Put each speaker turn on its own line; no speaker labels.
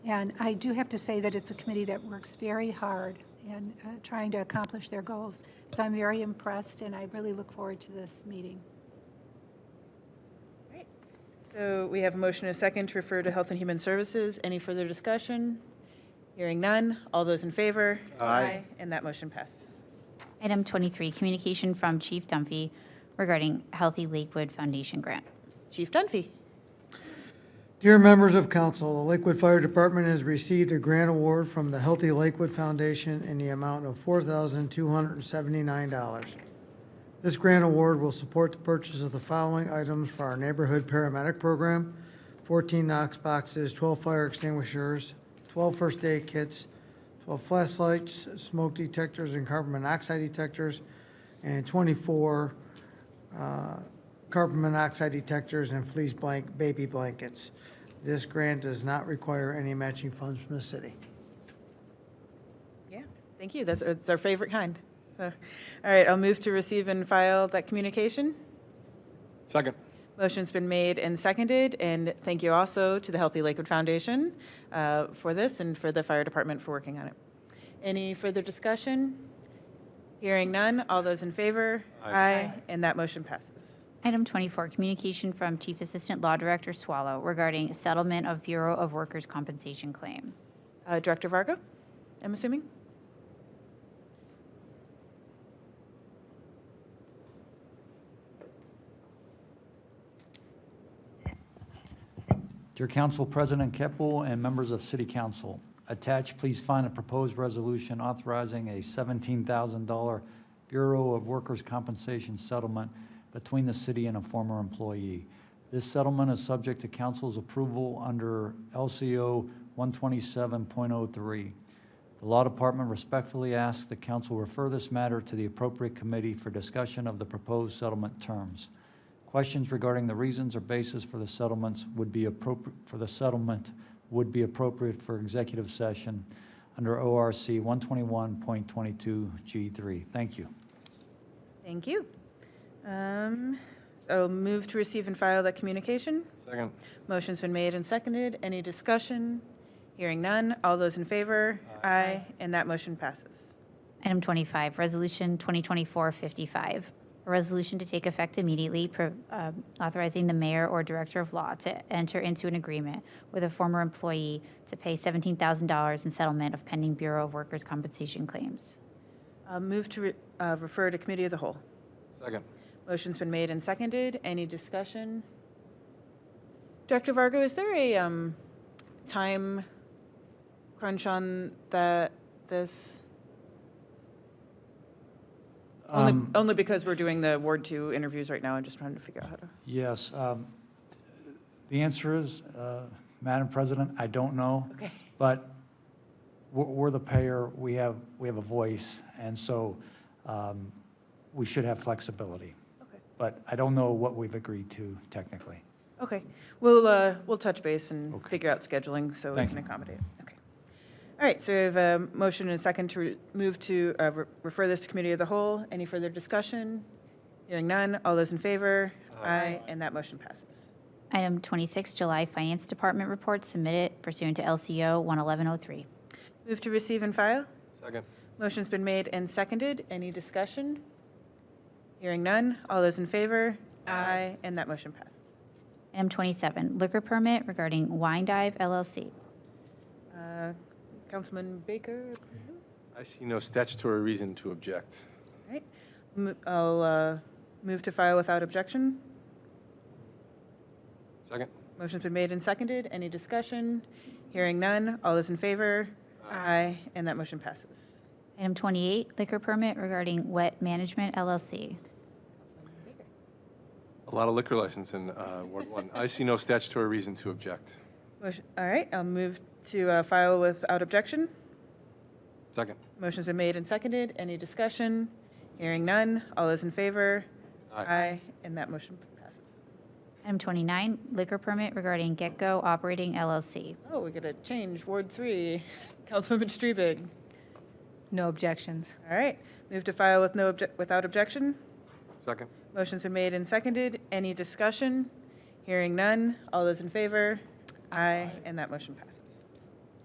And I do have to say that it's a committee that works very hard and uh, trying to accomplish their goals. So I'm very impressed, and I really look forward to this meeting.
Great. So we have a motion and a second to refer to Health and Human Services. Any further discussion? Hearing none. All those in favor?
Aye.
And that motion passes.
Item 23, communication from Chief Dunphy regarding Healthy Lakewood Foundation grant.
Chief Dunphy.
Dear members of council, the Lakewood Fire Department has received a grant award from the Healthy Lakewood Foundation in the amount of $4,279. This grant award will support the purchase of the following items for our neighborhood paramedic program: 14 Knox boxes, 12 fire extinguishers, 12 first aid kits, 12 flashlights, smoke detectors and carbon monoxide detectors, and 24 uh, carbon monoxide detectors and fleece blank, baby blankets. This grant does not require any matching funds from the city.
Yeah, thank you. That's, it's our favorite kind. So, all right, I'll move to receive and file that communication.
Second.
Motion's been made and seconded, and thank you also to the Healthy Lakewood Foundation uh, for this and for the fire department for working on it. Any further discussion? Hearing none, all those in favor?
Aye.
And that motion passes.
Item 24, communication from Chief Assistant Law Director Swallow regarding settlement of Bureau of Workers' Compensation claim.
Uh, Director Varga, I'm assuming?
Dear Council President Keppel and members of City Council, attached, please find a proposed resolution authorizing a $17,000 Bureau of Workers' Compensation settlement between the city and a former employee. This settlement is subject to council's approval under LCO 127.03. The Law Department respectfully asks the council refer this matter to the appropriate committee for discussion of the proposed settlement terms. Questions regarding the reasons or basis for the settlements would be appropriate, for the settlement would be appropriate for executive session under ORC 121.22G3. Thank you.
Thank you. Um, I'll move to receive and file that communication.
Second.
Motion's been made and seconded. Any discussion? Hearing none, all those in favor? Aye. And that motion passes.
Item 25, Resolution 2024-55, a resolution to take effect immediately pro- um, authorizing the mayor or director of law to enter into an agreement with a former employee to pay $17,000 in settlement of pending Bureau of Workers' Compensation claims.
I'll move to re- uh, refer to committee of the whole.
Second.
Motion's been made and seconded. Any discussion? Director Vargo, is there a um, time crunch on the, this? Only,
Um,
only because we're doing the Ward Two interviews right now. I'm just trying to figure out how to.
Yes, um, the answer is, uh, Madam President, I don't know.
Okay.
But we're- we're the payer, we have, we have a voice, and so um, we should have flexibility.
Okay.
But I don't know what we've agreed to technically.
Okay, we'll, uh, we'll touch base and
Okay.
figure out scheduling so we
Thank
can
you.
accommodate. Okay. All right, so we have a motion and a second to re- move to, uh, re- refer this to committee of the whole. Any further discussion? Hearing none, all those in favor?
Aye.
And that motion passes.
Item 26, July Finance Department report submitted pursuant to LCO 11103.
Move to receive and file.
Second.
Motion's been made and seconded. Any discussion? Hearing none, all those in favor? Aye. And that motion passes.
Item 27, liquor permit regarding Wine Dive LLC.
Uh, Councilman Baker?
I see no statutory reason to object.
All right, Mo- I'll uh, move to file without objection.
Second.
Motion's been made and seconded. Any discussion? Hearing none. All those in favor? Aye. And that motion passes.
Item 28, liquor permit regarding Wet Management LLC.
A lot of liquor license in uh, Ward 1. I see no statutory reason to object.
Motion- All right, I'll move to uh, file without objection.
Second.
Motion's been made and seconded. Any discussion? Hearing none. All those in favor? And that motion passes.
Item 29, liquor permit regarding Get Go Operating LLC.
Oh, we got to change Ward 3. Councilwoman Strebig.
No objections.
All right, move to file with no, obje- without objection.
Second.
Motion's been made and seconded. Any discussion? Hearing none. All those in favor? Aye. And that motion passes.